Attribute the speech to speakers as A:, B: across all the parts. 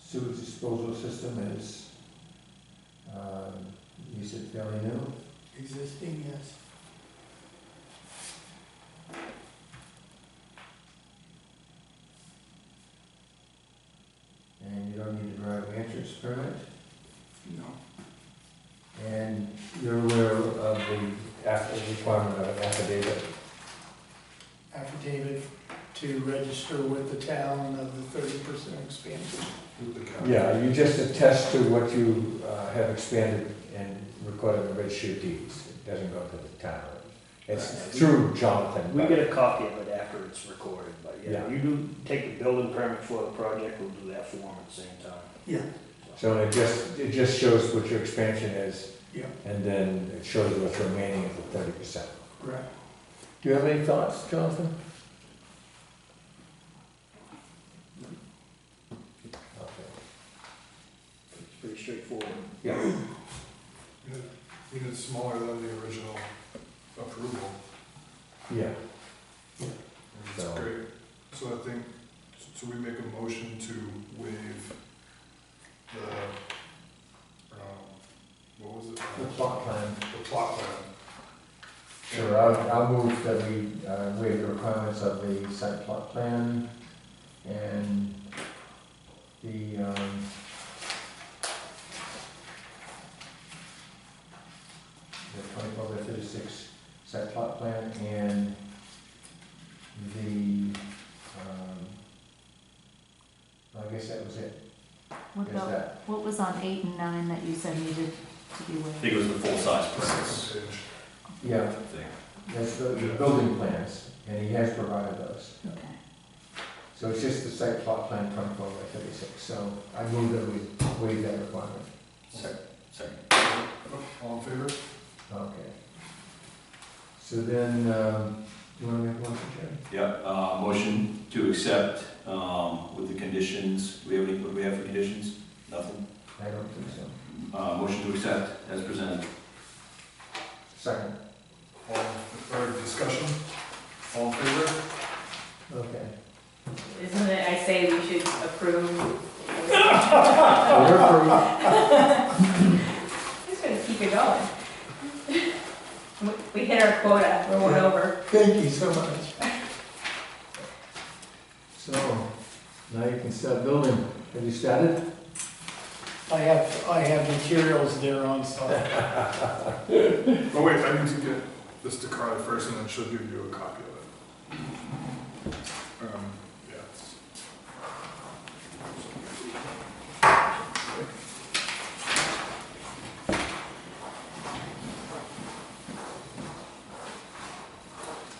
A: sewage disposal system is, uh, you said fairly new?
B: Existing, yes.
A: And you don't need a driveway entrance permit?
B: No.
A: And you're aware of the aff- requirement of affidavit?
B: Affidavit to register with the town of the thirty percent expansion.
A: Yeah, you just attest to what you uh, have expanded and recorded in the registry of deeds. It doesn't go to the town. It's through Jonathan.
C: We
A: but-
C: get a copy of it after it's recorded, but yeah,
A: Yeah.
C: you do take the building permit for the project, we'll do that form at the same time.
B: Yeah.
A: So it just, it just shows what your expansion is.
B: Yeah.
A: And then it shows what's remaining of the thirty percent.
B: Right.
A: Do you have any thoughts, Jonathan? Okay.
C: It's pretty straightforward.
A: Yeah,
D: Even smaller than the original approval.
A: yeah.
D: It's
A: So-
D: great. So I think, so we make a motion to waive the, um, what was it?
A: The plot plan.
D: The plot plan.
A: Sure, I'll, I'll move that we uh, waive the requirements of the site plot plan and the, um, the twenty-four by thirty-six site plot plan and the, um, I guess that was it.
E: What
A: Is
E: about,
A: that,
E: what was on eight and nine that you said needed to be
F: I
E: waived?
F: think it was the full-size prints
D: Second page.
A: yeah,
F: thing.
A: that's the the building plans, and he has provided those.
E: Okay.
A: So it's just the site plot plan twenty-four by thirty-six, so I move that we waive that requirement.
F: Second.
D: All in favor?
A: Okay. So then, um, do you wanna make a motion, Jerry?
F: Yep, uh, motion to accept, um, with the conditions, we have any, what do we have for conditions? Nothing.
A: I don't think so.
F: Uh, motion to accept as presented.
A: Second,
D: All, or discussion? All in favor?
A: okay.
G: Isn't it, I say we should approve?
A: So we're approved.
G: Just gonna keep it going. We- We hit our quota, we're one over.
B: Thank you so much.
A: So, now you can start building. Have you started?
B: I have, I have materials there on site.
D: Oh wait, I need to get this to Carly first and then she'll give you a copy of it. Um, yeah. it's-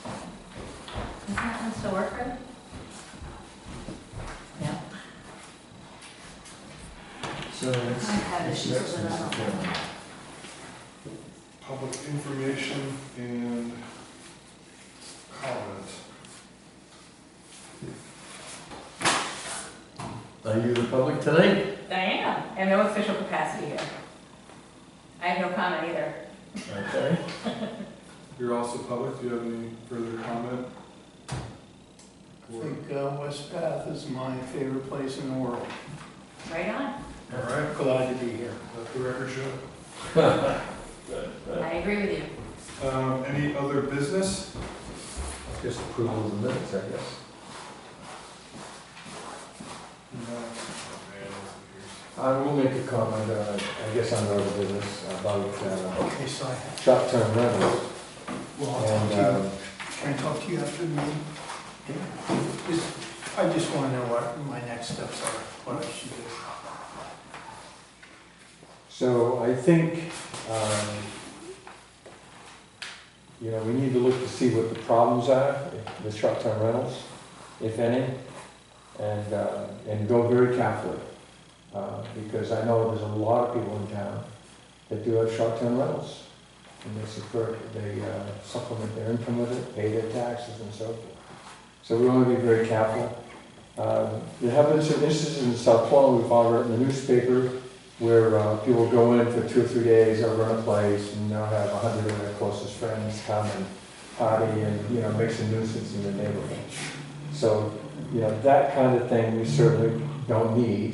G: Does that one still work, Fred? Yeah.
A: So it's.
E: I had
A: it's
E: issues
A: next
E: with
A: month's
E: that.
A: agenda.
D: Public information and comment.
A: Are you the public tonight?
G: I am, I have no official capacity here. I have no comment either.
A: Okay.
D: You're also public, do you have any further comment?
B: I
D: Or-
B: think uh, West Bath is my favorite place in the world.
G: Right on,
D: All right,
B: Glad to be here.
D: let the record show.
G: I agree with you.
D: Um, any other business?
A: Just approval of the minutes, I guess.
D: No.
A: I will make a comment, uh, I guess on the other business about, uh,
B: Okay, so I have,
A: short-term rentals.
B: well, I'll talk
A: And,
B: to you.
A: um,
B: Can I talk to you after the meeting? Just- I just want to know what my next steps are, what I should do.
A: So I think, um, you know, we need to look to see what the problems are with short-term rentals, if any, and, uh, and go very carefully. Uh, because I know there's a lot of people in town that do have short-term rentals. And they support, they uh, supplement their income with it, pay their taxes and so forth. So we want to be very careful. Um, There have been some instances in South Florida, we've all read in the newspaper, where uh, people go in for two or three days, they'll run a place, and they'll have a hundred of their closest friends come and party and, you know, make some nuisance in the neighborhood. So, you know, that kind of thing we certainly don't need.